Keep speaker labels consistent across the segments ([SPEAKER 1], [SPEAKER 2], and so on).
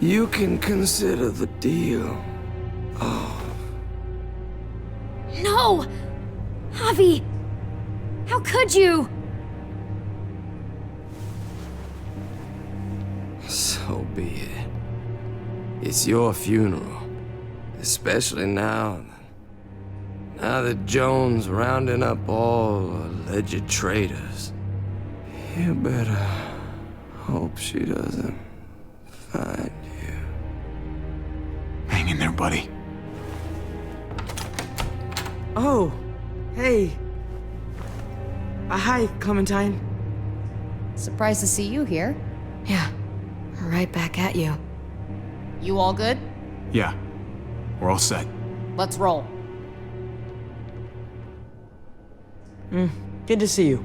[SPEAKER 1] You can consider the deal.
[SPEAKER 2] No! Javi! How could you?
[SPEAKER 1] So be it. It's your funeral. Especially now. Now that Jones rounding up all alleged traitors. You better hope she doesn't find you.
[SPEAKER 3] Hang in there, buddy.
[SPEAKER 4] Oh, hey. Uh, hi, Clementine.
[SPEAKER 5] Surprised to see you here.
[SPEAKER 4] Yeah, right back at you.
[SPEAKER 5] You all good?
[SPEAKER 3] Yeah, we're all set.
[SPEAKER 5] Let's roll.
[SPEAKER 4] Good to see you.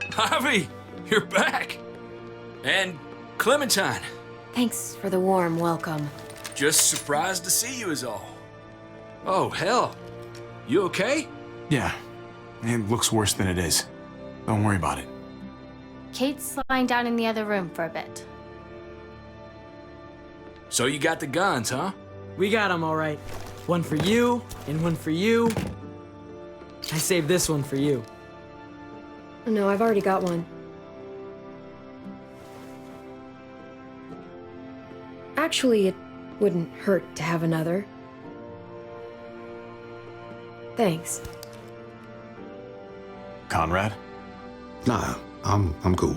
[SPEAKER 6] Javi, you're back! And Clementine,
[SPEAKER 2] Thanks for the warm welcome.
[SPEAKER 6] just surprised to see you is all. Oh, hell. You okay?
[SPEAKER 3] Yeah, it looks worse than it is. Don't worry about it.
[SPEAKER 7] Kate's lying down in the other room for a bit.
[SPEAKER 6] So you got the guns, huh?
[SPEAKER 4] We got 'em all right. One for you, and one for you. I saved this one for you.
[SPEAKER 2] No, I've already got one. Actually, it wouldn't hurt to have another. Thanks.
[SPEAKER 3] Conrad,
[SPEAKER 8] Nah, I'm I'm cool.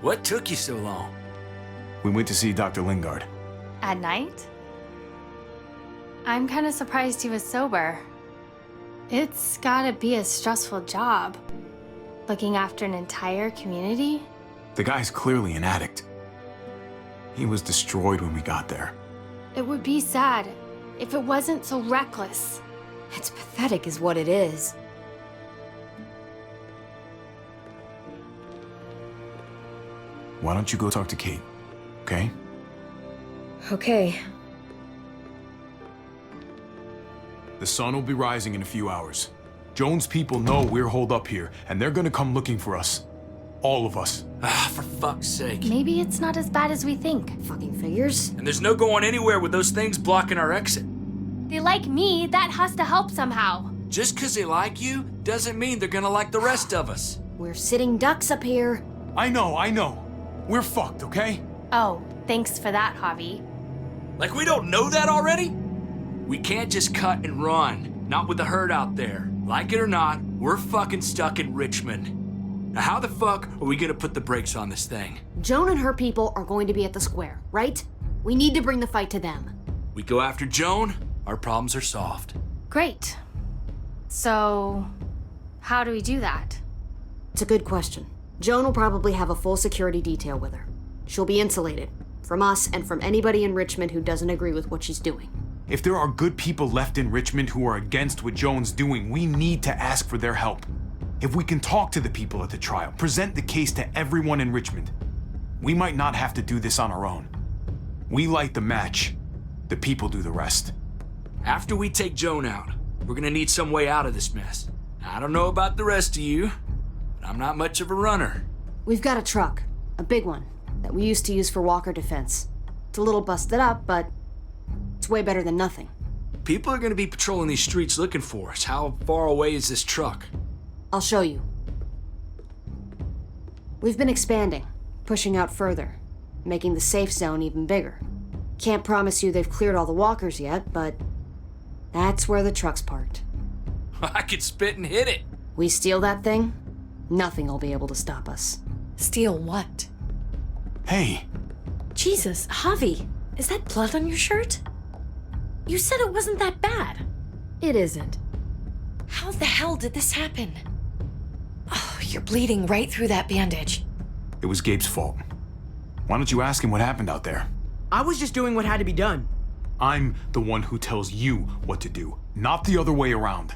[SPEAKER 6] What took you so long?
[SPEAKER 3] we went to see Dr. Lingard.
[SPEAKER 7] At night? I'm kind of surprised he was sober. It's gotta be a stressful job. Looking after an entire community?
[SPEAKER 3] The guy's clearly an addict. He was destroyed when we got there.
[SPEAKER 7] It would be sad if it wasn't so reckless.
[SPEAKER 2] It's pathetic, is what it is.
[SPEAKER 3] Why don't you go talk to Kate? Okay?
[SPEAKER 2] Okay,
[SPEAKER 3] The sun will be rising in a few hours. Jones' people know we're holed up here, and they're gonna come looking for us. All of us.
[SPEAKER 6] Ah, for fuck's sake.
[SPEAKER 7] Maybe it's not as bad as we think.
[SPEAKER 2] fucking figures.
[SPEAKER 6] And there's no going anywhere with those things blocking our exit.
[SPEAKER 7] They like me, that has to help somehow.
[SPEAKER 6] Just 'cause they like you doesn't mean they're gonna like the rest of us.
[SPEAKER 2] We're sitting ducks up here.
[SPEAKER 3] I know, I know. We're fucked, okay?
[SPEAKER 7] Oh, thanks for that, Javi.
[SPEAKER 6] Like, we don't know that already? We can't just cut and run. Not with the herd out there. Like it or not, we're fucking stuck in Richmond. Now, how the fuck are we gonna put the brakes on this thing?
[SPEAKER 9] Joan and her people are going to be at the square, right? We need to bring the fight to them.
[SPEAKER 6] We go after Joan, our problems are solved.
[SPEAKER 7] Great. So, how do we do that?
[SPEAKER 9] It's a good question. Joan will probably have a full security detail with her. She'll be insulated from us and from anybody in Richmond who doesn't agree with what she's doing.
[SPEAKER 3] If there are good people left in Richmond who are against what Joan's doing, we need to ask for their help. If we can talk to the people at the trial, present the case to everyone in Richmond, we might not have to do this on our own. We light the match, the people do the rest.
[SPEAKER 6] After we take Joan out, we're gonna need some way out of this mess. Now, I don't know about the rest of you, but I'm not much of a runner.
[SPEAKER 9] We've got a truck, a big one, that we used to use for Walker defense. It's a little busted up, but it's way better than nothing.
[SPEAKER 6] People are gonna be patrolling these streets looking for us. How far away is this truck?
[SPEAKER 9] I'll show you. We've been expanding, pushing out further, making the safe zone even bigger. Can't promise you they've cleared all the walkers yet, but that's where the truck's parked.
[SPEAKER 6] I could spit and hit it.
[SPEAKER 9] We steal that thing, nothing will be able to stop us.
[SPEAKER 10] Steal what?
[SPEAKER 3] Hey,
[SPEAKER 10] Jesus, Javi, is that blood on your shirt? You said it wasn't that bad.
[SPEAKER 2] It isn't.
[SPEAKER 10] How the hell did this happen? Oh, you're bleeding right through that bandage.
[SPEAKER 3] it was Gabe's fault. Why don't you ask him what happened out there?
[SPEAKER 4] I was just doing what had to be done.
[SPEAKER 3] I'm the one who tells you what to do, not the other way around.